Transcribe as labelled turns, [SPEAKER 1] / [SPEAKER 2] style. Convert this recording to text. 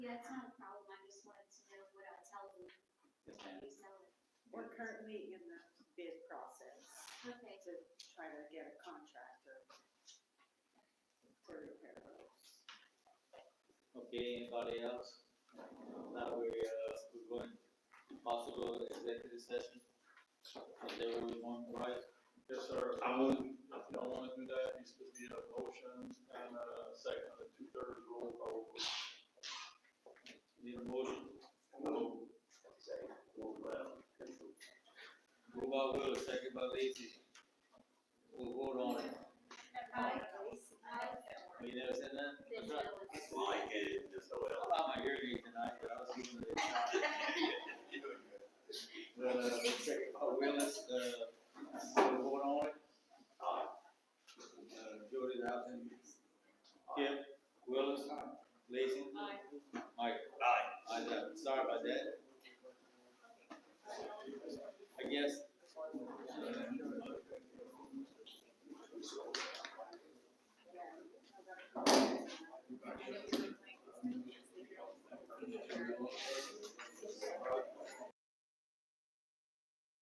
[SPEAKER 1] We're currently in the bid process
[SPEAKER 2] Okay,
[SPEAKER 1] to try to get a contractor for repair roads.
[SPEAKER 3] Okay, anybody else? Now we're, uh, we're going to possible executive session. Is everyone right?
[SPEAKER 4] Yes, sir. I would. If y'all want to do that, it needs to be a motion and a second, a two-thirds roll call.
[SPEAKER 3] Need a motion?
[SPEAKER 4] No.
[SPEAKER 3] Move by Will, second by Lacy. We'll vote on it. You never said that?
[SPEAKER 2] then Jill is.
[SPEAKER 5] I get it, just so
[SPEAKER 3] I lost my hearing aid tonight, but I was giving it a shot. Uh, second by Willis, uh, we'll vote on it. Uh, Jody Dawson. Kim, Willis, Lacy. Mike.
[SPEAKER 5] Aye.
[SPEAKER 3] I, uh, sorry about that. I guess